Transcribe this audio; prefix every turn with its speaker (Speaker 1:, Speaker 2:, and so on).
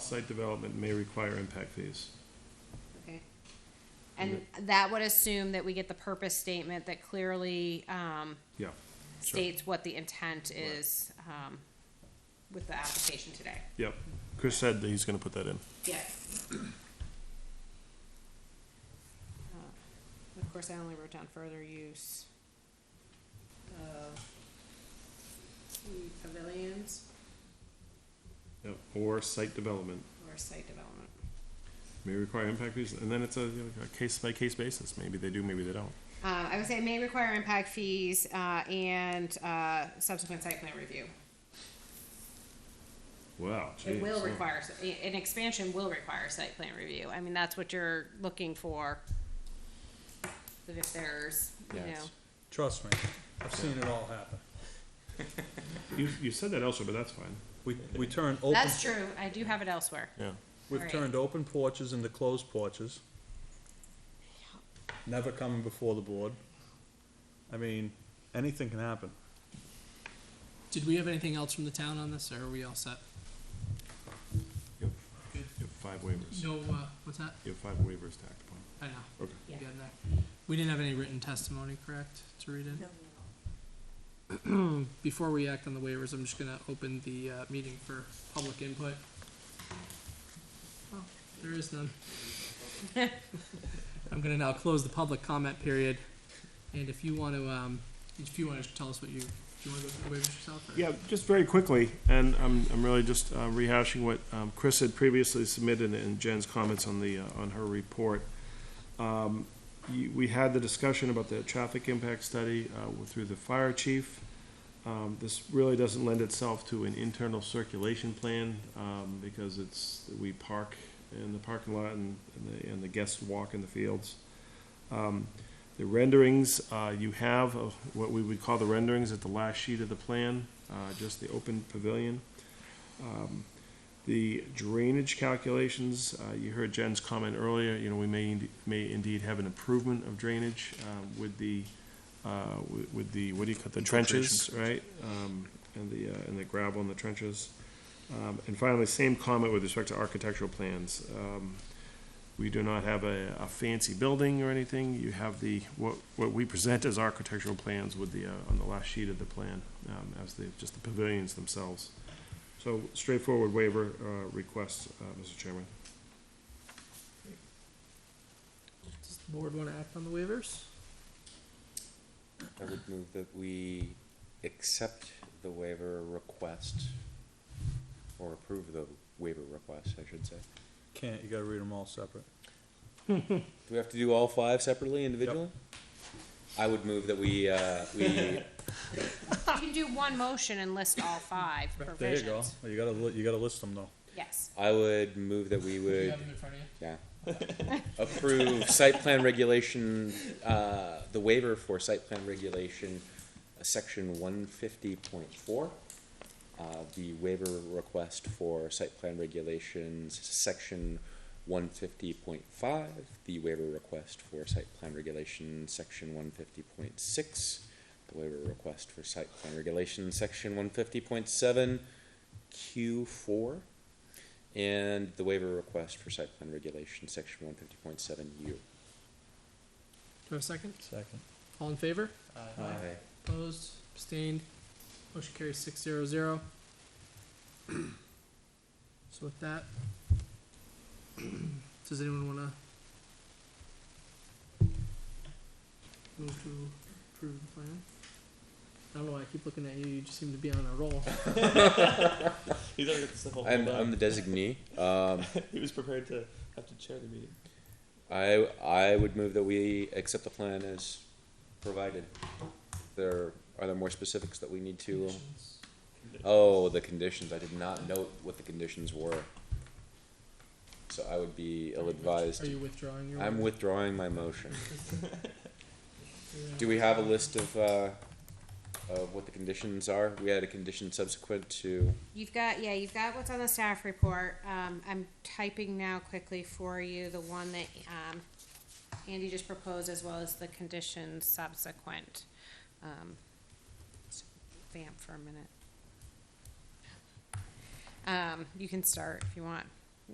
Speaker 1: site development may require impact fees.
Speaker 2: Okay. And that would assume that we get the purpose statement that clearly, um,
Speaker 1: Yeah. Sure.
Speaker 2: states what the intent is, um, with the application today.
Speaker 1: Yep. Chris said that he's gonna put that in.
Speaker 2: Yes. Uh, Of course, I only wrote down further use of the pavilions
Speaker 1: Yep. Or site development
Speaker 2: or site development.
Speaker 1: may require impact fees, and then it's a, you know, a case by case basis. Maybe they do, maybe they don't.
Speaker 2: Uh, I would say may require impact fees, uh, and, uh, subsequent site plan review.
Speaker 1: Wow.
Speaker 2: It
Speaker 1: geez,
Speaker 2: will
Speaker 1: yeah.
Speaker 2: require, an expansion will require site plan review. I mean, that's what you're looking for. That if there's, you
Speaker 1: Yes.
Speaker 2: know,
Speaker 3: Trust me, I've seen it all happen.
Speaker 1: You, you said that elsewhere, but that's fine.
Speaker 3: We, we turn open.
Speaker 2: that's true. I do have it elsewhere.
Speaker 1: Yeah.
Speaker 3: We've
Speaker 2: Right.
Speaker 3: turned open porches into closed porches. Never coming before the board. I mean, anything can happen.
Speaker 4: Did we have anything else from the town on this, or are we all set?
Speaker 1: Yep. You
Speaker 4: Good.
Speaker 1: have five waivers.
Speaker 4: No, uh, what's that?
Speaker 1: You have five waivers tacked upon.
Speaker 4: I know.
Speaker 1: Okay.
Speaker 4: you
Speaker 2: Yeah.
Speaker 4: got that. We didn't have any written testimony, correct, to read in? Before we act on the waivers, I'm just gonna open the, uh, meeting for public input. Oh, There is none. I'm gonna now close the public comment period, and if you wanna, um, if you wanna tell us what you, do you wanna go through the waivers yourself? or-
Speaker 1: Yeah, just very quickly, and I'm, I'm really just uh, rehashing what um, Chris had previously submitted and Jen's comments on the, uh, on her report. Um, you- We had the discussion about the traffic impact study uh, through the fire chief. Um, This really doesn't lend itself to an internal circulation plan, um, because it's, we park in the parking lot and, and the, and the guests walk in the fields. Um, the renderings, uh, you have of what we would call the renderings at the last sheet of the plan, uh, just the open pavilion. Um, The drainage calculations, uh, you heard Jen's comment earlier, you know, we may, ind- may indeed have an improvement of drainage uh, with the, uh, wi- with the, what do you call, it, the trenches, right? Um, And the, uh, and the gravel in the trenches. Um, And finally, same comment with respect to architectural plans. Um, we do not have a, a fancy building or anything. You have the, what, what we present as architectural plans with the, uh, on the last sheet of the plan, um, as the, just the pavilions themselves. So straightforward waiver, uh, request, uh, Mr. Chairman.
Speaker 4: Does the board wanna act on the waivers?
Speaker 5: I would move that we accept the waiver request, or approve the waiver request, I should say.
Speaker 3: Can't, you gotta read them all separate.
Speaker 5: Do we have to do all five separately, individually? I would move that we, uh, we,
Speaker 2: You can do one motion and list all five
Speaker 3: There you go.
Speaker 2: provisions.
Speaker 3: You gotta, li- you gotta list them though.
Speaker 2: Yes.
Speaker 5: I would move that we
Speaker 4: Do you
Speaker 5: would,
Speaker 4: have them in front of you?
Speaker 5: yeah. Approve site plan regulation, uh, the waiver for site plan regulation, uh, section one fifty point four. Uh, the waiver request for site plan regulations, section one fifty point five, the waiver request for site plan regulation, section one fifty point six, the waiver request for site plan regulation, section one fifty point seven, Q four, and the waiver request for site plan regulation, section one fifty point seven U.
Speaker 4: Do I have a second?
Speaker 3: Second.
Speaker 4: All in favor? Opposed, abstained, motion carries six zero zero. So with that, does anyone wanna move to approve the plan? I don't know why I keep looking at you, you just seem to be on a roll.
Speaker 6: He's already got the stuff all
Speaker 5: I'm,
Speaker 6: pulled
Speaker 5: I'm
Speaker 6: up.
Speaker 5: the designee. Um,
Speaker 6: He was prepared to have to chair the meeting.
Speaker 5: I, I would move that we accept the plan as provided. There, are there more specifics that we need to? Oh, the conditions. I did not note what the conditions were. So I would be
Speaker 4: Are
Speaker 5: ill-advised.
Speaker 4: you withdrawing your?
Speaker 5: I'm
Speaker 4: waiver?
Speaker 5: withdrawing my motion.
Speaker 4: You're
Speaker 5: Do we have a list of, uh, of what the conditions are? We had a condition subsequent to,
Speaker 2: You've got, yeah, you've got what's on the staff report. Um, I'm typing now quickly for you the one that, um, Andy just proposed as well as the conditions subsequent. Um, so Vamp for a minute. Um, you can start if you want.